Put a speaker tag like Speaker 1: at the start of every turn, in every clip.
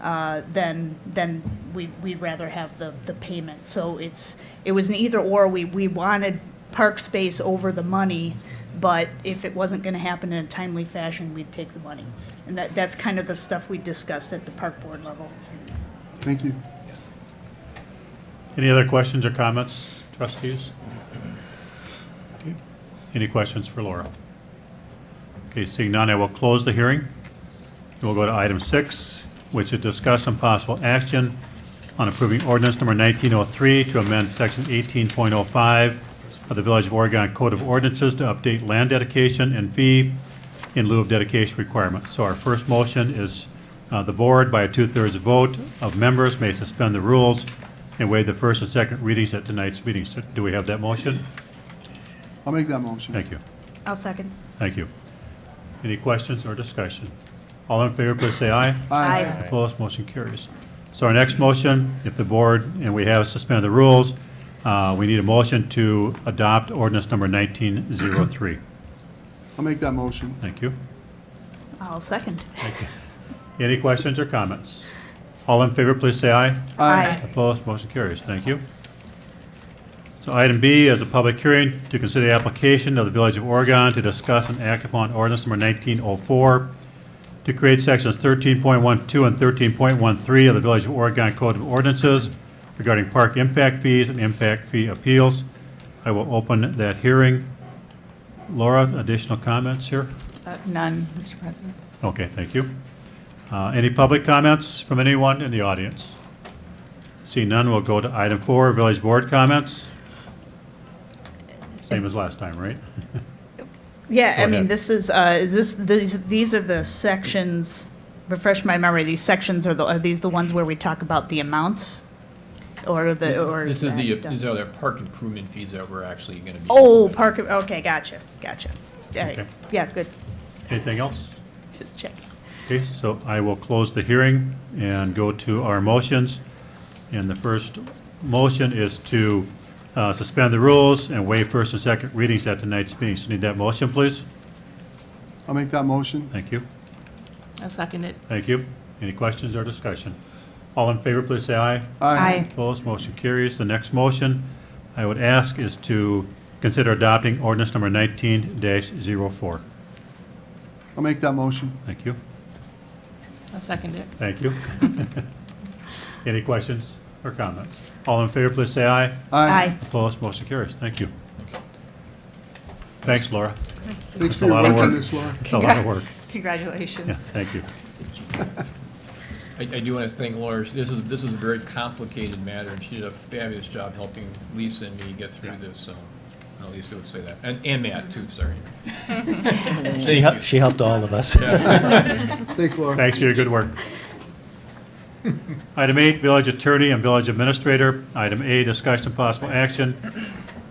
Speaker 1: uh, then, then we, we'd rather have the, the payment. So it's, it was an either or, we, we wanted park space over the money, but if it wasn't gonna happen in a timely fashion, we'd take the money. And that, that's kind of the stuff we discussed at the park board level.
Speaker 2: Thank you.
Speaker 3: Any other questions or comments, trustees? Okay. Any questions for Laura? Okay, seeing none, I will close the hearing. We'll go to item six, which is discuss and possible action on approving ordinance number 1903 to amend section 18.05 of the Village of Oregon Code of Ordinances to update land dedication and fee in lieu of dedication requirements. So our first motion is uh, the board, by a two-thirds vote of members, may suspend the rules and waive the first and second readings at tonight's meeting. So Do we have that motion?
Speaker 2: I'll make that motion.
Speaker 3: Thank you.
Speaker 1: I'll second.
Speaker 3: Thank you. Any questions or discussion? All in favor, please say aye.
Speaker 1: Aye.
Speaker 3: Opposed, motion carries. So our next motion, if the board, and we have suspended the rules, uh, we need a motion to adopt ordinance number 1903.
Speaker 2: I'll make that motion.
Speaker 3: Thank you.
Speaker 1: I'll second.
Speaker 3: Any questions or comments? All in favor, please say aye.
Speaker 1: Aye.
Speaker 3: Opposed, motion carries. Thank you. So item B is a public hearing to consider the application of the Village of Oregon to discuss and act upon ordinance number 1904 to create sections 13.12 and 13.13 of the Village of Oregon Code of Ordinances regarding park impact fees and impact fee appeals. I will open that hearing. Laura, additional comments here?
Speaker 4: Uh, None, Mr. President.
Speaker 3: Okay, thank you. Uh, Any public comments from anyone in the audience? See none, we'll go to item four, village board comments. Same as last time, right?
Speaker 1: Yeah,
Speaker 3: Go
Speaker 1: I mean,
Speaker 3: ahead.
Speaker 1: this is, uh, is this, these, these are the sections, refresh my memory, these sections are the, are these the ones where we talk about the amounts? Or the, or?
Speaker 5: This is the,
Speaker 1: and, uh,
Speaker 5: these are the park improvement fees that we're actually gonna be.
Speaker 1: Oh, park, okay, gotcha, gotcha. All right,
Speaker 3: Okay.
Speaker 1: yeah, good,
Speaker 3: Anything else?
Speaker 1: just checking.
Speaker 3: Okay, so I will close the hearing and go to our motions. And the first motion is to uh, suspend the rules and waive first and second readings at tonight's meeting. So need that motion, please?
Speaker 2: I'll make that motion.
Speaker 3: Thank you.
Speaker 4: I'll second it.
Speaker 3: Thank you. Any questions or discussion? All in favor, please say aye. Opposed, motion carries. The next motion I would ask is to consider adopting ordinance number nineteen 4
Speaker 2: I'll make that motion.
Speaker 3: Thank you,
Speaker 4: I'll second it.
Speaker 3: thank you. Any questions or comments? All in favor, please say aye.
Speaker 1: Aye.
Speaker 3: Opposed, motion carries. Thank you. Thanks, Laura.
Speaker 2: Thanks
Speaker 3: That's
Speaker 2: for
Speaker 3: a
Speaker 2: your
Speaker 3: lot of
Speaker 2: work on
Speaker 3: work.
Speaker 2: this, Laura.
Speaker 3: It's a lot of work. Yeah,
Speaker 4: Congratulations.
Speaker 3: thank you.
Speaker 5: I, I do wanna thank Laura, this is, this is a very complicated matter, and she did a fabulous job helping Lisa and me get through this, so. no, Lisa would say that, and, and Matt too, sorry.
Speaker 6: She helped, she helped all of us.
Speaker 2: Thanks, Laura.
Speaker 3: Thanks for your good work. Item eight, village attorney and village administrator. Item A, discussion and possible action.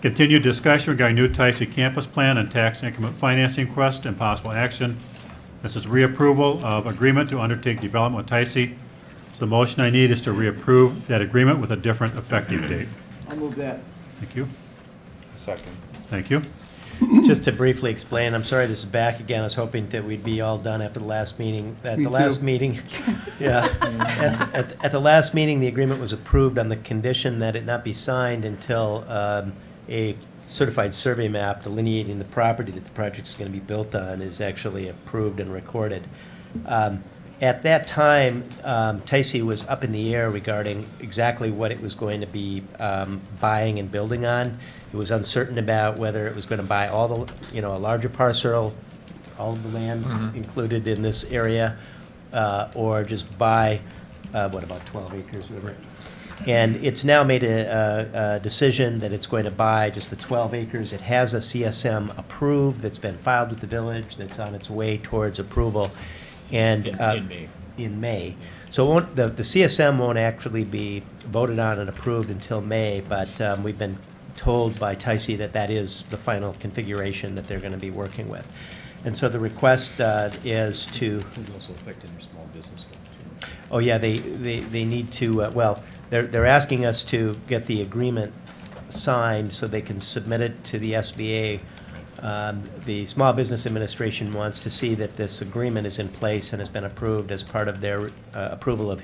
Speaker 3: Continued discussion regarding new Tyson campus plan and tax increment financing request and possible action. This is reapproval of agreement to undertake development with Tyson. So the motion I need is to reapprove that agreement with a different effective date.
Speaker 7: I'll move that.
Speaker 3: Thank you.
Speaker 8: Second.
Speaker 3: Thank you.
Speaker 6: Just to briefly explain, I'm sorry this is back again. I was hoping that we'd be all done after the last meeting. At
Speaker 2: Me
Speaker 6: the last
Speaker 2: too.
Speaker 6: meeting, yeah. At- At, at the last meeting, the agreement was approved on the condition that it not be signed until um, a certified survey map delineating the property that the project's going to be built on is actually approved and recorded. Um, At that time, um, Tyce was up in the air regarding exactly what it was going to be um, buying and building on. It was uncertain about whether it was going to buy all the, you know, a larger parcel, all of the
Speaker 5: Mm-hmm.
Speaker 6: land included in this area, uh, or just buy, uh, what, about 12 acres or whatever. And it's now made a, a- a decision that it's going to buy just the 12 acres. It has a CSM approved that's been filed with the village, that's on its way towards approval. And.
Speaker 5: In-
Speaker 6: uh,
Speaker 5: in May.
Speaker 6: in May. So it won't, the, the CSM won't actually be voted on and approved until May, but um, we've been told by Tyce E that that is the final configuration that they're going to be working with. And so the request uh, is to,
Speaker 5: It's also affecting your small business stuff too.
Speaker 6: oh yeah, they, they, they need to, uh, well, they're, they're asking us to get the agreement signed so they can submit it to the SBA. Um, The Small Business Administration wants to see that this agreement is in place and has been approved as part of their uh, approval of